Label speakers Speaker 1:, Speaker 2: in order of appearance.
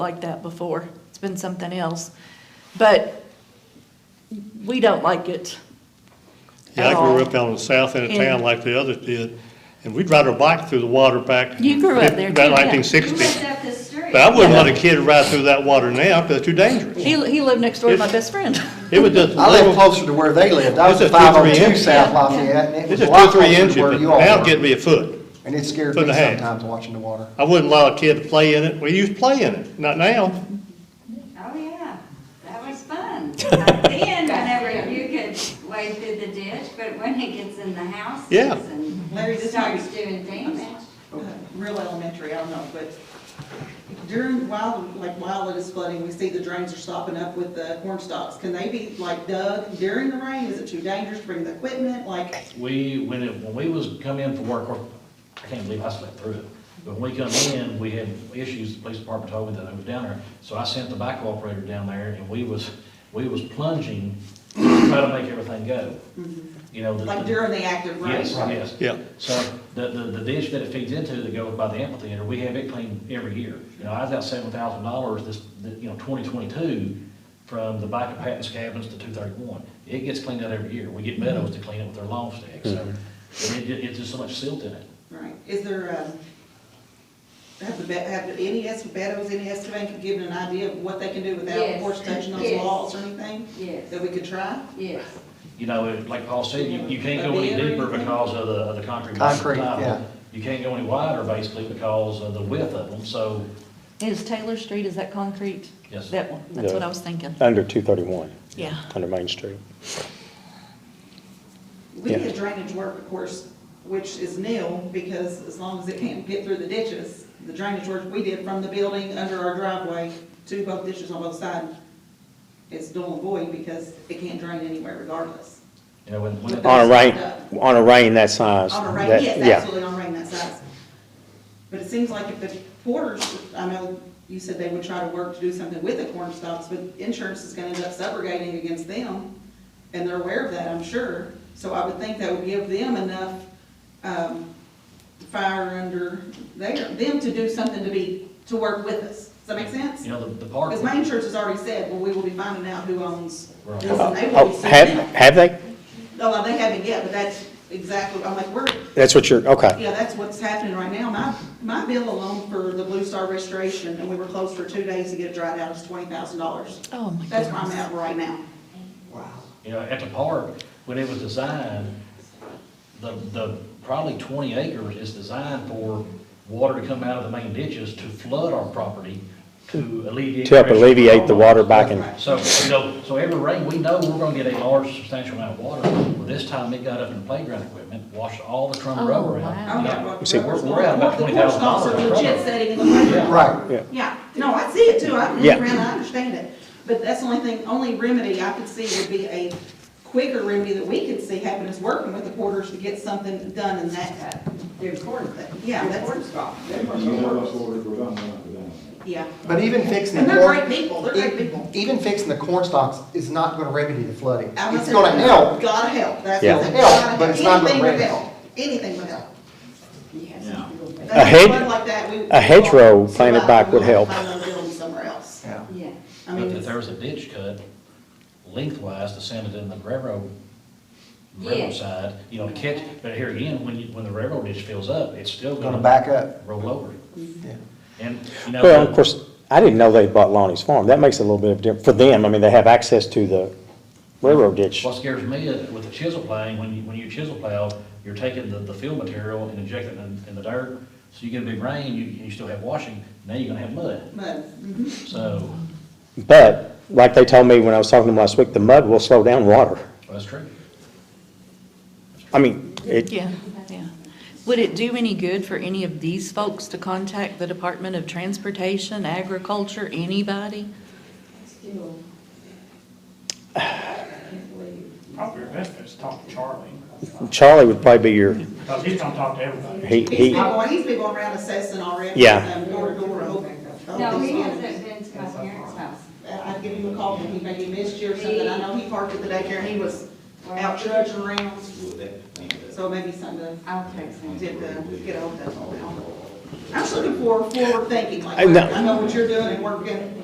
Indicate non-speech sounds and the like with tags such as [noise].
Speaker 1: like that before. It's been something else. But we don't like it.
Speaker 2: Yeah, I
Speaker 1: at
Speaker 2: grew
Speaker 1: all.
Speaker 2: up on the south end of
Speaker 1: Oh. And-
Speaker 2: town like the others did, and we'd ride our bike through the water back.
Speaker 1: You grew up there too,
Speaker 2: About
Speaker 1: yeah.
Speaker 2: nineteen
Speaker 3: You
Speaker 2: sixty.
Speaker 3: lived up the street.
Speaker 2: But I wouldn't let a kid ride through that water now, because it's too dangerous.
Speaker 1: He, he lived next door to my best friend. [laughs]
Speaker 2: It was just a
Speaker 4: I live
Speaker 2: little,
Speaker 4: closer to where they lived. I
Speaker 2: It's
Speaker 4: was
Speaker 2: a
Speaker 4: at
Speaker 2: two,
Speaker 4: five oh
Speaker 2: three
Speaker 4: two
Speaker 2: inch.
Speaker 4: South Lafayette, and it
Speaker 2: it's
Speaker 4: was a
Speaker 2: just
Speaker 4: lot
Speaker 2: two, three
Speaker 4: closer
Speaker 2: inches,
Speaker 4: to where
Speaker 2: but
Speaker 4: you all
Speaker 2: now it'd
Speaker 4: were.
Speaker 2: get me a foot.
Speaker 4: And it scared
Speaker 2: foot and
Speaker 4: me
Speaker 2: a half.
Speaker 4: sometimes watching the water.
Speaker 2: I wouldn't allow a kid to play in it. We used to play in it, not now.
Speaker 3: Oh, yeah, that was fun. Back Then, whenever you could wade through the ditch, but when it gets in the houses
Speaker 2: Yeah.
Speaker 5: Larry,
Speaker 3: and
Speaker 5: this
Speaker 3: starts
Speaker 5: might-
Speaker 3: doing damage.
Speaker 5: real elementary, I don't know, but during, while, like while it is flooding, we see the drains are stopping up with the corn stalks. Can they be like dug during the rain? Is it too dangerous to bring the equipment? Like,
Speaker 6: We, when it, when we was come in for work, or- I can't believe I slept through it. But when we come in, we had issues, the police department told me that I was down there. So I sent the backhoe operator down there and we was, we was plunging, trying to make everything go. You know, the.
Speaker 5: like during the active rain?
Speaker 6: Yes, yes.
Speaker 2: Yeah.
Speaker 6: So the, the, the ditch that it feeds into that goes by the amphitheater, we have it cleaned every year. You know, I was out seven thousand dollars this, the- you know, twenty twenty-two from the back of Patton's Cabins to two thirty-one. It gets cleaned out every year. We get Meadows to clean it with their lawn sticks, so
Speaker 4: Mm-hmm.
Speaker 6: it, it, it's just so much silt in it.
Speaker 5: Right. Is there, um, have the, be- have any, est- Beddoes, any estimate can give an idea of what they can do without, of
Speaker 3: Yes.
Speaker 5: course, touching those
Speaker 3: Yes.
Speaker 5: walls or anything?
Speaker 3: Yes.
Speaker 5: That we could try?
Speaker 3: Yes,
Speaker 6: You know, it- like Paul said, you, you can't go any
Speaker 5: That'd be
Speaker 6: deeper
Speaker 5: everything.
Speaker 6: because of the, of the concrete.
Speaker 4: Concrete,
Speaker 6: tile.
Speaker 4: yeah.
Speaker 6: You can't go any wider basically because of the width of them, so
Speaker 1: Is Taylor Street, is that concrete?
Speaker 6: Yes.
Speaker 1: That one, that's what
Speaker 7: Yeah.
Speaker 1: I was thinking.
Speaker 7: Under 231,
Speaker 1: Yeah.
Speaker 7: under Main Street.
Speaker 5: We
Speaker 7: Yeah.
Speaker 5: did drainage work, of course, which is nil, because as long as it can't get through the ditches, the drainage work we did from the building under our driveway to both ditches on both sides, it's null and void because it can't drain anywhere regardless.
Speaker 6: you know, when, when. it-
Speaker 7: On a rain, on a rain that size.
Speaker 5: On a rain,
Speaker 7: that-
Speaker 5: yes,
Speaker 7: yeah.
Speaker 5: absolutely, on rain that size. But it seems like if the porters, I know you said they would try to work to do something with the corn stalks, but insurance is gonna end up subrogating against them, and they're aware of that, I'm sure. So I would think that would give them enough, um, fire under there, them to do something to be, to work with us. Does that make sense?
Speaker 6: You know, the, the park.
Speaker 5: Because my insurance has already said, well, we will be finding out who owns
Speaker 6: Right.
Speaker 5: this, and they will be
Speaker 7: Oh, have,
Speaker 5: suing them.
Speaker 7: have they?
Speaker 5: No, they haven't yet, but that's exactly, I'm like, we're,
Speaker 7: That's what you're, okay.
Speaker 5: yeah, that's what's happening right now. My, my bill alone for the Blue Star restoration, and we were closed for two days to get it dried out, is twenty thousand dollars.
Speaker 1: Oh, my
Speaker 5: That's where I'm
Speaker 1: goodness.
Speaker 5: at right now.
Speaker 6: You know, at the park, when it was designed, the, the, probably twenty acres is designed for water to come out of the main ditches to flood our property to alleviate.
Speaker 7: To help alleviate the water back in.
Speaker 5: Right.
Speaker 6: So, you know, so every rain, we know we're gonna get a large substantial amount of water. Well, this time it got up in the playground equipment, washed all the
Speaker 1: Oh,
Speaker 6: trunk rubber
Speaker 1: wow.
Speaker 6: out.
Speaker 5: I'm
Speaker 6: You
Speaker 5: not-
Speaker 6: know,
Speaker 7: See,
Speaker 6: We're, we're out about
Speaker 5: The
Speaker 6: twenty thousand
Speaker 5: horse stalls
Speaker 6: dollars.
Speaker 5: are legit setting in the playground.
Speaker 4: Right.
Speaker 7: Yeah.
Speaker 5: Yeah, no, I see it too, I'm
Speaker 7: Yeah.
Speaker 5: looking around, I understand it, but that's the only thing, only remedy I could see would be a quicker remedy that we could see happen is working with the porters to get something done in that. Their corn thing. Yeah, that's.
Speaker 8: You know, that's what we're going for them.
Speaker 5: Yeah,
Speaker 4: But even fixing the
Speaker 5: and
Speaker 4: corn.
Speaker 5: they're great people, they're great
Speaker 4: e-
Speaker 5: people.
Speaker 4: Even fixing the corn stalks is not gonna remedy the flooding.
Speaker 5: I was
Speaker 4: It's gonna
Speaker 5: thinking,
Speaker 4: help.
Speaker 5: Gotta help, that's.
Speaker 7: Yeah.
Speaker 5: what it-
Speaker 4: Help,
Speaker 5: gotta
Speaker 4: but it's not
Speaker 5: anything
Speaker 4: gonna
Speaker 5: would
Speaker 4: help.
Speaker 5: help. Anything would help.
Speaker 8: Yeah.
Speaker 5: That's why
Speaker 7: hedge-
Speaker 5: like that, we-
Speaker 7: a hedgerow
Speaker 5: So
Speaker 7: planted
Speaker 5: I-
Speaker 7: back
Speaker 5: we'll
Speaker 7: would help.
Speaker 5: Find another building somewhere else.
Speaker 4: Yeah.
Speaker 3: yeah.
Speaker 5: I
Speaker 6: But
Speaker 5: mean,
Speaker 6: if there
Speaker 5: it's-
Speaker 6: was a ditch cut lengthwise to send it in the railroad, railroad
Speaker 3: Yes.
Speaker 6: side, you know, to catch, but here again, when you, when the railroad ditch fills up, it's still
Speaker 4: Gonna
Speaker 6: gonna.
Speaker 4: back up.
Speaker 6: Roll over.
Speaker 5: Mm-hmm.
Speaker 4: Yeah.
Speaker 6: And, you know.
Speaker 7: Well, of course, I didn't know they bought Lonnie's Farm. That makes a little bit of difference. For them, I mean, they have access to the railroad ditch.
Speaker 6: What scares me is with the chisel plowing, when you, when you chisel plow, you're taking the, the fill material and injecting it in, in the dirt. So you get a big rain, you, you still have washing, now you're gonna have mud.
Speaker 5: Mud.
Speaker 6: So,
Speaker 7: But like they told me when I was talking to them last week, the mud will slow down water.
Speaker 6: that's true.
Speaker 7: I mean, it,
Speaker 1: Yeah, yeah. Would it do any good for any of these folks to contact the Department of Transportation, Agriculture, anybody?
Speaker 9: Probably your best bet is talk to Charlie,
Speaker 7: Charlie would probably be your,
Speaker 9: because he's gonna talk to everybody.
Speaker 7: he,
Speaker 5: He's
Speaker 7: he,
Speaker 5: been, going- he's been going around assessing already.
Speaker 7: Yeah.
Speaker 5: um, Door to door. oh, oh,
Speaker 3: No,
Speaker 5: he's
Speaker 3: he
Speaker 5: on
Speaker 3: hasn't
Speaker 5: it.
Speaker 3: been to my parents' house.
Speaker 5: I- I'd give him a call, and he maybe missed you or something, I know he parked at the daycare, and he was out trudging around. So maybe something to
Speaker 3: I'll text him.
Speaker 5: get, uh, get over that. I'm just looking for forward thinking, like,
Speaker 7: I know.
Speaker 5: I know what you're doing and we're gonna,